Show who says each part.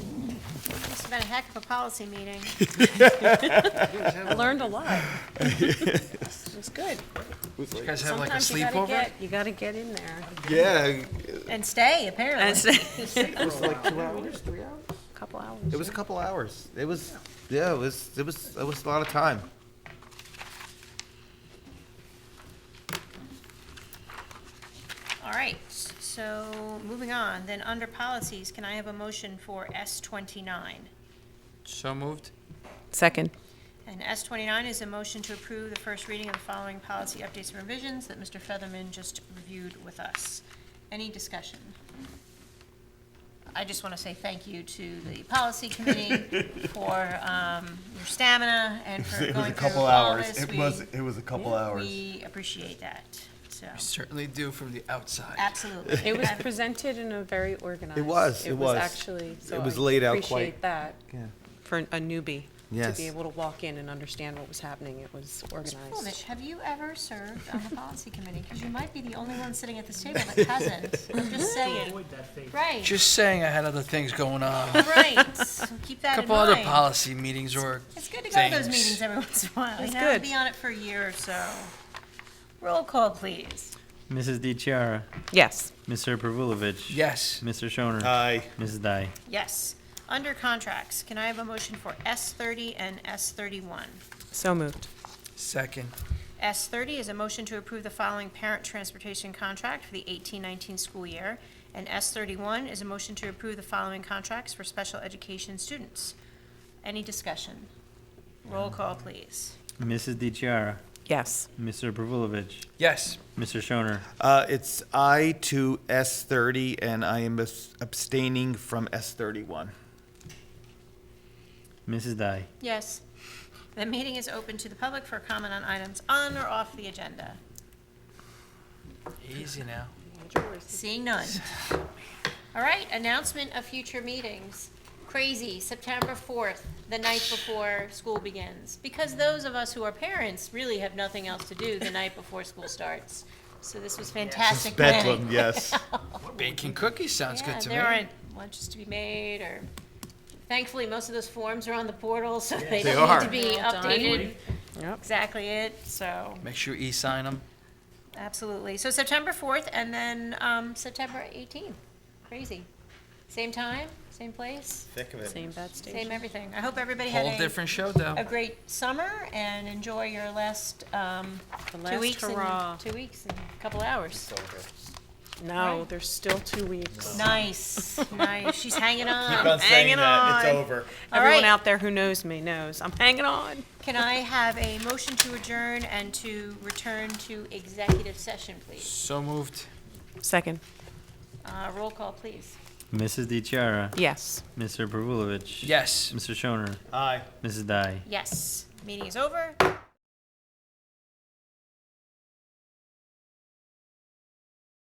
Speaker 1: been a heck of a policy meeting. I learned a lot. It was good.
Speaker 2: You guys have like a
Speaker 1: Sometimes you gotta
Speaker 2: sleepover?
Speaker 1: get, you gotta get in there.
Speaker 2: Yeah.
Speaker 1: And stay, apparently.
Speaker 2: It was like two hours, three hours?
Speaker 1: Couple hours.
Speaker 2: It was a couple hours. It was, yeah, it was, it was, it was a lot of time.
Speaker 1: All right, so moving on, then under policies, can I have a motion for S twenty-nine?
Speaker 3: So moved.
Speaker 4: Second.
Speaker 1: And S twenty-nine is a motion to approve the first reading of the following policy updates and revisions that Mr. Featherman just reviewed with us. Any discussion? I just want to say thank you to the policy committee for um, your stamina and for
Speaker 5: It was a
Speaker 1: going through
Speaker 5: couple
Speaker 1: all
Speaker 5: hours.
Speaker 1: this.
Speaker 5: It
Speaker 1: We-
Speaker 5: was, it was a couple hours.
Speaker 1: We appreciate that, so,
Speaker 3: Certainly do from the outside.
Speaker 1: absolutely.
Speaker 4: It was
Speaker 1: I've-
Speaker 4: presented in a very organized.
Speaker 2: was, it was.
Speaker 4: actually, so
Speaker 2: was
Speaker 4: I
Speaker 2: laid out
Speaker 4: appreciate
Speaker 2: quite-
Speaker 4: that.
Speaker 2: Yeah.
Speaker 4: For a newbie. To
Speaker 2: Yes.
Speaker 4: be able to walk in and understand what was happening, it was
Speaker 1: Fulmich,
Speaker 4: organized.
Speaker 1: have you ever served on the policy committee? Because you might be the only one sitting at this table that hasn't. I'm just saying. Right,
Speaker 3: Just saying, I had other things going on. A
Speaker 1: right. So Keep that in
Speaker 3: couple other
Speaker 1: mind.
Speaker 3: policy meetings or
Speaker 1: It's good to go to those
Speaker 3: things.
Speaker 1: meetings every once in a while. You
Speaker 4: It's
Speaker 1: know,
Speaker 4: good.
Speaker 1: be on it for a year or so. Roll call, please.
Speaker 6: Mrs. DiChiara,
Speaker 4: Yes.
Speaker 6: Mr. Pervulovich.
Speaker 3: yes.
Speaker 6: Mr. Shoner.
Speaker 2: Aye.
Speaker 6: Mrs. Dai.
Speaker 1: Yes. Under contracts, can I have a motion for S thirty and S thirty-one?
Speaker 4: So moved.
Speaker 3: Second.
Speaker 1: S thirty is a motion to approve the following parent transportation contract for the eighteen nineteen school year. And S thirty-one is a motion to approve the following contracts for special education students. Any discussion? Roll call, please.
Speaker 6: Mrs. DiChiara,
Speaker 4: Yes.
Speaker 6: Mr. Pervulovich.
Speaker 3: Yes.
Speaker 6: Mr. Shoner.
Speaker 2: Uh, it's I to S thirty and I am abs- abstaining from S thirty-one.
Speaker 6: Mrs. Dai.
Speaker 1: Yes. The meeting is open to the public for comment on items on or off the agenda.
Speaker 3: Easy now.
Speaker 1: Seeing none. All right, announcement of future meetings. Crazy, September 4th, the night before school begins. Because those of us who are parents really have nothing else to do the night before school starts. So this was fantastic planning.
Speaker 2: Bedlam, yes.
Speaker 3: Baking cookies sounds
Speaker 1: Yeah,
Speaker 3: good to me.
Speaker 1: there aren't lunches to be made or, thankfully, most of those forms are on the portal, so they don't need to be updated.
Speaker 4: Yep.
Speaker 1: Exactly it, so.
Speaker 3: Make sure you e-sign them.
Speaker 1: Absolutely. So September 4th and then um, September 18th. Crazy. Same time, same place,
Speaker 2: Thick of
Speaker 4: Same bad station.
Speaker 1: same everything. I hope everybody had
Speaker 3: Whole
Speaker 1: a,
Speaker 3: different show
Speaker 1: a
Speaker 3: though.
Speaker 1: great summer and enjoy your last um,
Speaker 4: The
Speaker 1: two
Speaker 4: last
Speaker 1: weeks
Speaker 4: hurrah.
Speaker 1: and two weeks and a couple hours.
Speaker 4: No, there's still two weeks.
Speaker 1: Nice, nice. She's hanging on.
Speaker 4: hanging that. It's on.
Speaker 2: over.
Speaker 1: All right.
Speaker 4: Everyone out there who knows me knows, I'm hanging on.
Speaker 1: Can I have a motion to adjourn and to return to executive session, please?
Speaker 3: So moved.
Speaker 4: Second.
Speaker 1: Uh, roll call, please.
Speaker 6: Mrs. DiChiara,
Speaker 4: Yes.
Speaker 6: Mr. Pervulovich.
Speaker 3: Yes.
Speaker 6: Mr. Shoner.
Speaker 2: Aye.
Speaker 6: Mrs. Dai.
Speaker 1: Yes. Meeting is over.